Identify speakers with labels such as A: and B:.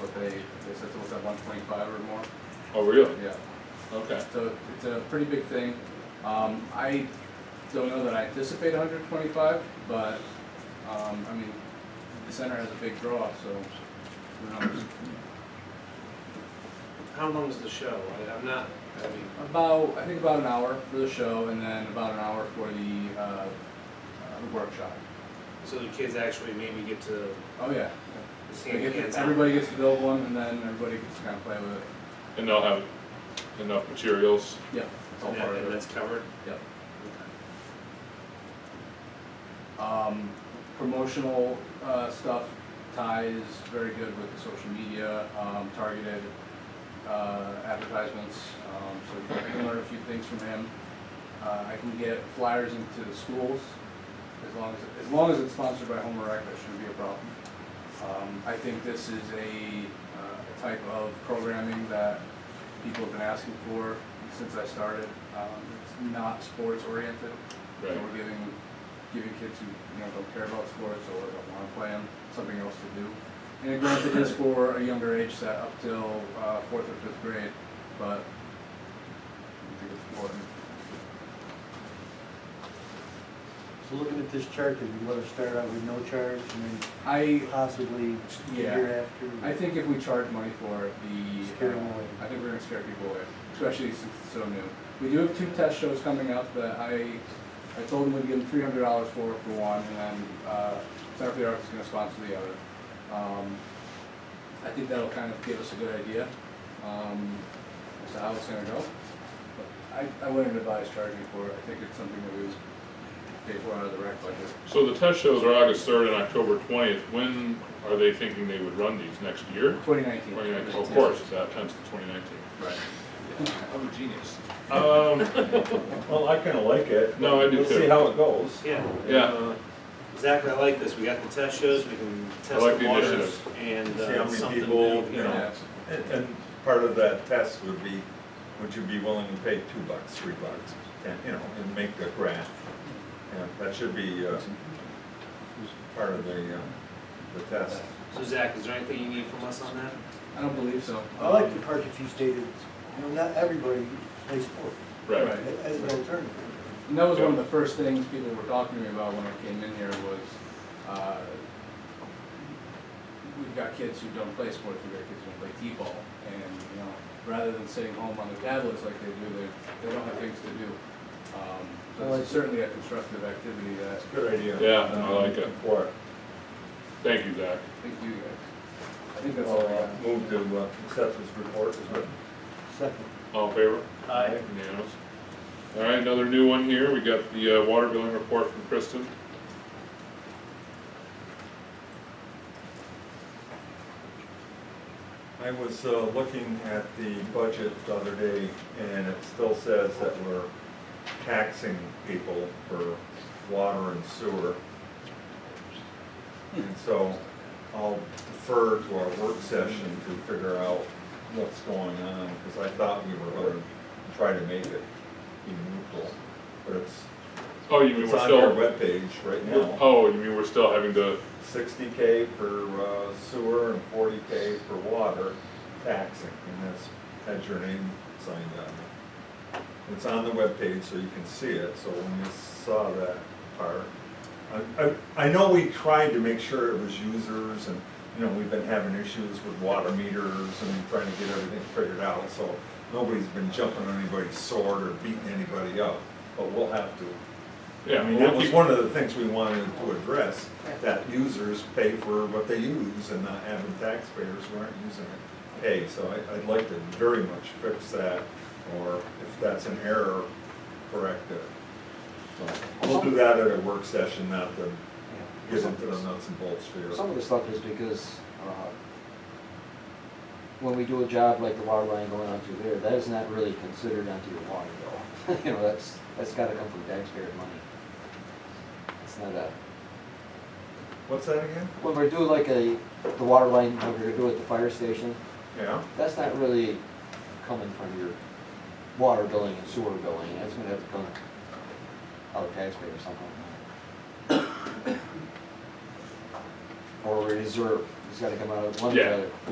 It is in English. A: what they, they said it was at one twenty-five or more,
B: Oh, really?
A: yeah.
B: Okay.
A: So it's a pretty big thing. Um, I don't know that I anticipate hundred and twenty-five, but, um, I mean, the center has a big draw, so who knows?
C: How long is the show? I, I'm not, I mean,
A: About, I think about an hour for the show and then about an hour for the, uh, uh, workshop.
C: so the kids actually maybe get to
A: Oh, yeah.
C: see
A: They
C: hands
A: get-
C: out.
A: Everybody gets to build one and then everybody gets to kind of play with it.
B: And they'll have enough materials.
A: Yeah, it's all
C: And that-
A: part of
C: and
A: it.
C: that's covered?
A: Yep. Um, promotional, uh, stuff, Ty is very good with the social media, um, targeted, uh, advertisements, um, so you can learn a few things from him. Uh, I can get flyers into the schools, as long as, as long as it's sponsored by Homer Rec, that shouldn't be a problem. Um, I think this is a, uh, a type of programming that people have been asking for since I started. Um, it's not sports oriented.
B: Right.
A: We're giving, giving kids who, you know, don't care about sports or don't wanna play them, something else to do. And granted, it's for a younger age set up till, uh, fourth or fifth grade, but I think it's important.
D: So looking at this chart, did we let her start out with no charge and
A: I,
D: then possibly the
A: Yeah.
D: year
A: I
D: after?
A: think if we charge money for it, the, uh,
D: Scare them away.
A: I think we're gonna scare people away, especially since it's so new. We do have two test shows coming up that I, I told them we'd give them three hundred dollars for, for one, and then, uh, Center for the Arts is gonna sponsor the other. Um, I think that'll kind of give us a good idea, um, as to how it's gonna go. But I, I wouldn't advise charging for it, I think it's something that we would pay for out of the rec budget.
B: So the test shows are August third and October twentieth. When are they thinking they would run these next year?
A: Twenty nineteen.
B: Twenty nineteen, of course, that comes to twenty nineteen.
A: Right. I'm a genius.
B: Um,
E: Well, I kinda like it.
B: No, I do
E: We'll see
B: too.
E: how it goes.
C: Yeah.
B: Yeah.
C: Uh, Zach, I like this. We got the test shows, we can test
B: like
C: the
B: the
C: waters
B: initiative.
C: and
E: See how
C: uh,
E: many
C: something new,
E: people,
C: you know.
A: Yeah.
E: And, and part of that test would be, would you be willing to pay two bucks, three bucks, and, you know, and make the graph? And that should be, uh, part of the, uh, the test.
C: So Zach, is there anything you need from us on that?
A: I don't believe so.
D: I like the part that you stated, you know, not everybody plays sport
B: right.
D: as an alternative.
A: And that was one of the first things people were talking to me about when I came in here was, uh, we've got kids who don't play sports, we've got kids who don't play T-ball. And, you know, rather than sitting home on their tablets like they do, they, they don't have things to do. Um, So it's certainly a constructive activity that,
E: Good idea.
B: Yeah, I
E: Um,
B: like it.
E: For, it.
B: Thank you, Zach.
A: thank you guys. I think that's all I
E: well,
A: got.
E: uh, move to, uh, accept this report as written.
D: Second,
B: All in favor?
C: Aye.
B: Unanimous. All right, another new one here. We got the uh, water billing report from Kristen.
E: I was uh, looking at the budget the other day, and it still says that we're taxing people for water and sewer. And so I'll defer to our work session to figure out what's going on, because I thought we were going to try to make it be neutral. But it's,
B: Oh, you mean
E: it's
B: we're
E: on their
B: still,
E: webpage right now.
B: oh, you mean we're still having to,
E: Sixty K for uh, sewer and forty K for water taxing, and that's, had your name signed on it. It's on the webpage, so you can see it, so when you saw that part, I, I, I know we tried to make sure it was users, and, you know, we've been having issues with water meters and trying to get everything figured out, so nobody's been jumping on anybody's sword or beating anybody up, but we'll have to
B: yeah.
E: I mean,
B: we'll
E: that was
B: keep-
E: one of the things we wanted to address, that users pay for what they use and not having taxpayers who aren't using it pay. So I, I'd like to very much fix that, or if that's an error, correct it. So We'll do that at a work session, not to get into the nuts and bolts here.
F: Some of the stuff is because, uh, when we do a job like the water line going onto there, that is not really considered onto your water bill. You know, that's, that's gotta come from taxpayer money. It's not a,
E: What's that again?
F: when we're doing like a, the water line, when we're doing at the fire station,
E: Yeah?
F: that's not really coming from your water billing and sewer billing, that's gonna have to come out of taxpayer or something. Or reserve, it's gotta come out of one or the
B: Yeah.
F: other.